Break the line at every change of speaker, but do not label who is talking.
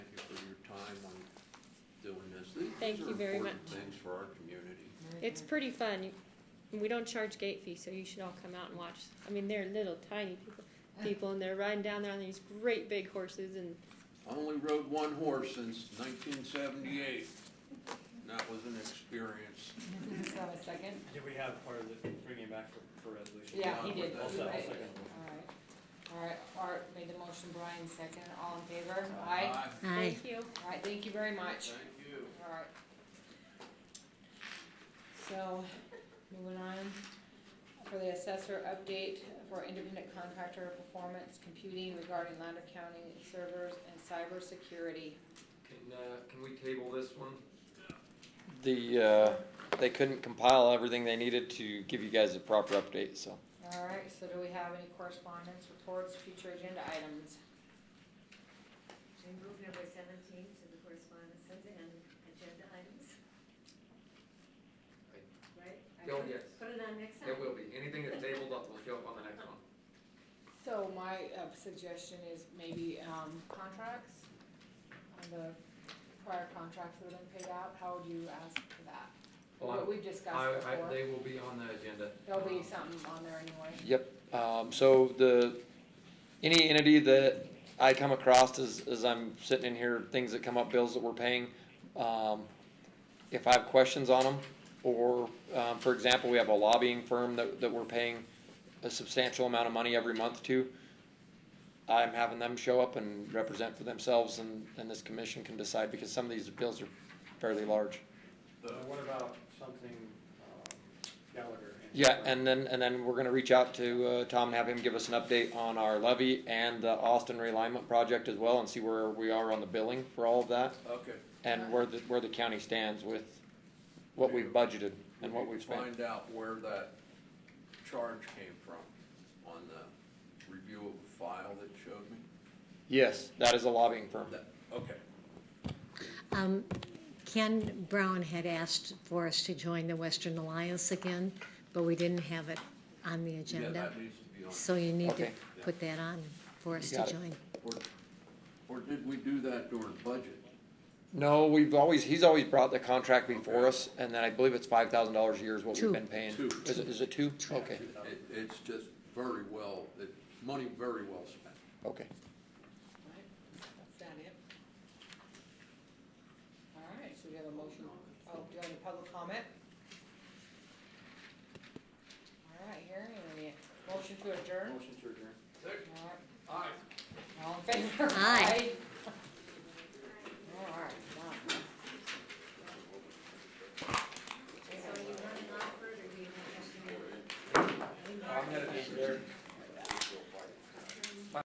Thank
These are
you very
important
much.
Things for our community.
It's pretty fun. You- We don't charge gate fees, so you should all come out and watch. I mean, they're little tiny people, people, and they're riding down there on these great big horses and
I only rode one horse since nineteen seventy-eight. That was an experience.
Just have a second.
Did we have part of the, bringing it back for, for resolution?
Yeah, he
Yeah,
did.
I'll
Also,
se-
Right.
also gonna-
All right, all right, Art made the motion, Brian second, all in favor? Aye.
thank you.
All right, thank you very much.
Thank you.
All right. So, moving on, for the assessor update for independent contractor performance computing regarding Lander County servers and cybersecurity.
Can, uh, can we table this one?
The, uh, they couldn't compile everything they needed to give you guys a proper update, so.
All right, so do we have any correspondence, reports, future agenda items?
I move number seventeen to the correspondences and agenda items. Right? I
Oh,
put-
yes.
Put it on next time.
It will be, anything that's tabled up will show up on the next one.
So my uh, suggestion is maybe um, contracts, on the prior contracts that have been paid out, how would you ask for that?
Well,
What we've discussed
I, I,
before,
they will be on the agenda.
there'll be
Um,
something on there anyway.
Yep, um, so the, any entity that I come across as, as I'm sitting in here, things that come up, bills that we're paying, um, if I have questions on them, or, um, for example, we have a lobbying firm that, that we're paying a substantial amount of money every month to, I'm having them show up and represent for themselves, and, and this commission can decide, because some of these bills are fairly large.
Uh, What about something, um, Gallagher?
Yeah, and then, and then we're gonna reach out to, uh, Tom and have him give us an update on our levy and the Austin realignment project as well and see where we are on the billing for all of that
Okay.
and where the, where the county stands with what we've budgeted and what
We
we've
can
spent.
Find out where that charge came from on the review of the file that showed me.
Yes, that is a lobbying firm.
That, okay.
Um, Ken Brown had asked for us to join the Western Alliance again, but we didn't have it on the
Yeah,
agenda.
that needs to be on.
So you need to
Okay.
put that on for us to
Got it.
join.
Or, or did we do that during budget?
No, we've always, he's always brought the contract before us and then I believe it's five thousand dollars a year is what we've
Two.
been paying.
Two.
Is it, is it two? Okay,
It, it's just very well, it, money very well spent.
okay.
Right, That's that it. All right, so we have a motion, oh, do you have any public comment? All right, hearing any, motion to adjourn?
Motion to adjourn.
All right,
Aye.
all in favor?
Aye.
All right, done.
So are you running off for it, or do you have a question?
I'm gonna be there.